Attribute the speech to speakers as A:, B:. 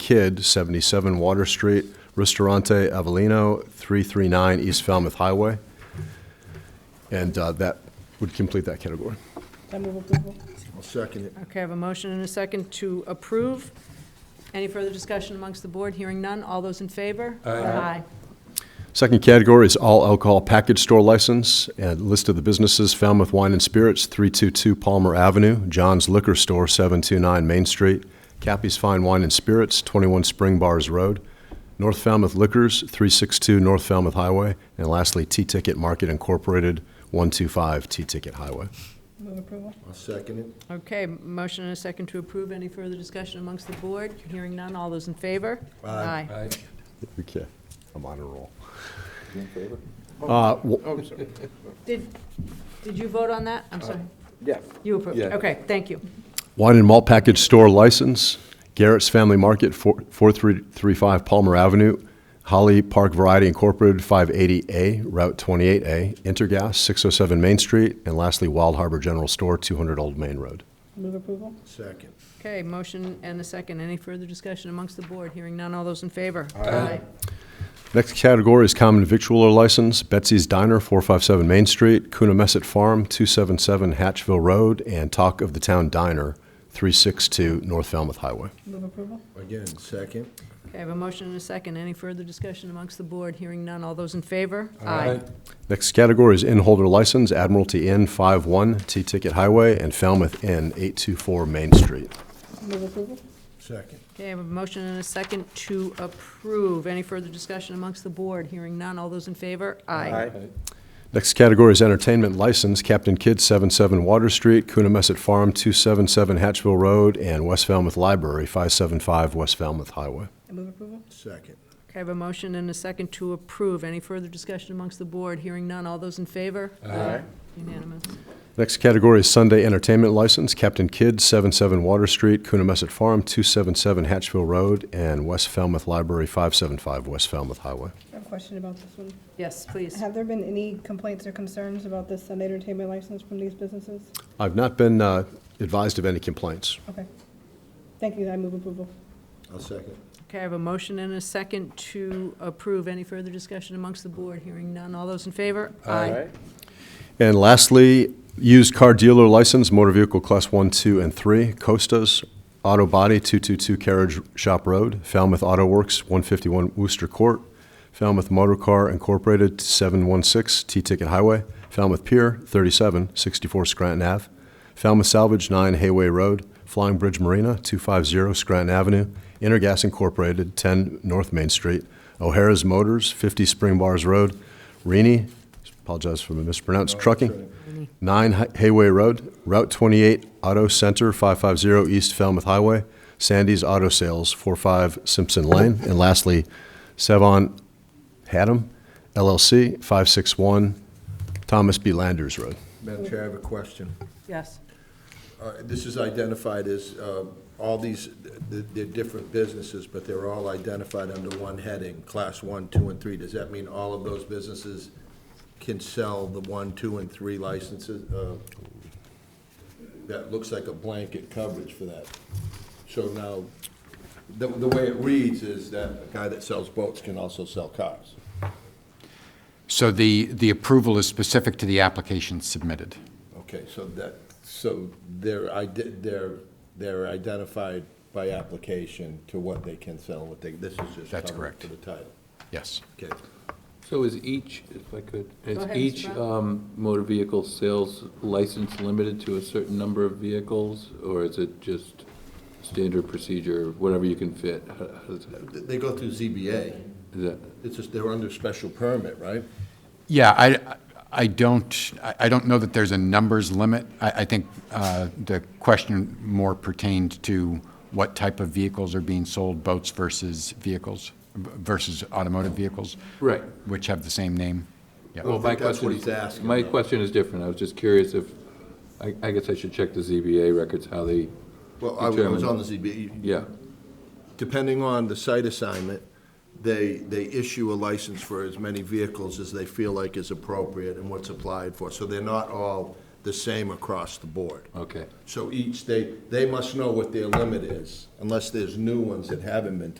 A: Kidd, 77 Water Street, Ristorante Avellino, 339 East Falmouth Highway. And uh, that would complete that category.
B: I move approval.
C: I'll second it.
D: Okay, I have a motion and a second to approve. Any further discussion amongst the board? Hearing none. All those in favor? Aye.
A: Second category is all alcohol package store license, and list of the businesses, Falmouth Wine and Spirits, 322 Palmer Avenue, John's Liquor Store, 729 Main Street, Cappy's Fine Wine and Spirits, 21 Spring Bars Road, North Falmouth Liquors, 362 North Falmouth Highway, and lastly, T-Ticket Market Incorporated, 125 T-Ticket Highway.
B: Move approval.
C: I'll second it.
D: Okay, motion and a second to approve. Any further discussion amongst the board? Hearing none. All those in favor? Aye.
E: Aye.
A: Okay, I'm on a roll.
C: You in favor?
A: Uh, w-
D: Did, did you vote on that? I'm sorry.
E: Uh, Yeah.
D: You approved.
E: Yeah.
D: Okay, thank you.
A: Wine and malt package store license, Garrett's Family Market, four- 4335 Palmer Avenue, Holly Park Variety Incorporated, 580A, Route 28A, Intergas, 607 Main Street, and lastly, Wild Harbor General Store, 200 Old Main Road.
B: Move approval.
C: Second.
D: Okay, motion and a second. Any further discussion amongst the board? Hearing none. All those in favor?
E: Aye.
A: Next category is common victualler license, Betsy's Diner, 457 Main Street, Coonamessett Farm, 277 Hatchville Road, and Talk of the Town Diner, 362 North Falmouth Highway.
B: Move approval.
C: Again, second.
D: Okay, I have a motion and a second. Any further discussion amongst the board? Hearing none. All those in favor?
A: Next category is inn holder license, Admiralty Inn 51, T-Ticket Highway, and Falmouth Inn 824 Main Street.
B: Move approval.
C: Second.
D: Okay, I have a motion and a second to approve. Any further discussion amongst the board? Hearing none. All those in favor? Aye.
A: Next category is entertainment license, Captain Kidd 77 Water Street, Coonamessett Farm 277 Hatchville Road, and West Falmouth Library 575 West Falmouth Highway.
B: I move approval.
C: Second.
D: Okay, I have a motion and a second to approve. Any further discussion amongst the board? Hearing none. All those in favor? Aye. Unanimous.
A: Next category is Sunday entertainment license, Captain Kidd 77 Water Street, Coonamessett Farm 277 Hatchville Road, and West Falmouth Library 575 West Falmouth Highway.
B: I have a question about this one.
D: Yes, please.
B: Have there been any complaints or concerns about this Sunday entertainment license from these businesses?
A: I've not been uh, advised of any complaints.
B: Okay. Thank you. I move approval.
C: I'll second.
D: Okay, I have a motion and a second to approve. Any further discussion amongst the board? Hearing none. All those in favor? Aye.
A: And lastly, used car dealer license, motor vehicle class 1, 2, and 3, Costas, Auto Body, 222 Carriage Shop Road, Falmouth Auto Works, 151 Wooster Court, Falmouth Motor Car Incorporated, 716 T-Ticket Highway, Falmouth Pier, 37, 64 Scranton Ave, Falmouth Salvage, 9 Hayway Road, Flying Bridge Marina, 250 Scranton Avenue, Intergas Incorporated, 10 North Main Street, O'Hara's Motors, 50 Spring Bars Road, Rini, apologize for the mispronounced, Trucking, 9 Hi- Hayway Road, Route 28, Auto Center, 550 East Falmouth Highway, Sandy's Auto Sales, 45 Simpson Lane, and lastly, Sevon Haddam LLC, 561 Thomas B. Landers Road.
C: Madam Chair, I have a question.
D: Yes.
C: Uh, This is identified as, um, all these, th- they're different businesses, but they're all identified under one heading, Class 1, 2, and 3. Does that mean all of those businesses can sell the 1, 2, and 3 licenses? Uh, That looks like a blanket coverage for that. So now, the the way it reads is that a guy that sells boats can also sell cars.
F: So the, the approval is specific to the application submitted.
C: Okay, so that, so they're, ide- they're, they're identified by application to what they can sell, what they, this is just.
F: That's
C: covered
F: correct.
C: To the title.
F: Yes.
C: Okay,
E: So is each, if I could, is
D: ahead, Mr.
E: each
D: Brown.
E: um, motor vehicle sales license limited to a certain number of vehicles? Or is it just standard procedure, whatever you can fit? How- how does that-
C: Th- they go through ZBA.
E: is that-
C: It's just, they're under special permit, right?
F: Yeah, I, I don't, I I don't know that there's a numbers limit. I, I think uh, the question more pertained to what type of vehicles are being sold, boats versus vehicles, versus automotive vehicles.
E: Right.
F: Which have the same name. Yeah.
C: Well,
E: my
C: think that's
E: question
C: what
E: is-
C: he's asking,
E: My
C: though.
E: question is different. I was just curious if, I I guess I should check the ZBA records, how they,
C: Well, I was
E: Determined.
C: on the ZBA.
E: yeah.
C: depending on the site assignment, they, they issue a license for as many vehicles as they feel like is appropriate and what's applied for. So they're not all the same across the board.
F: Oh,
E: Okay.
C: So each, they, they must know what their limit is, unless there's new ones that haven't been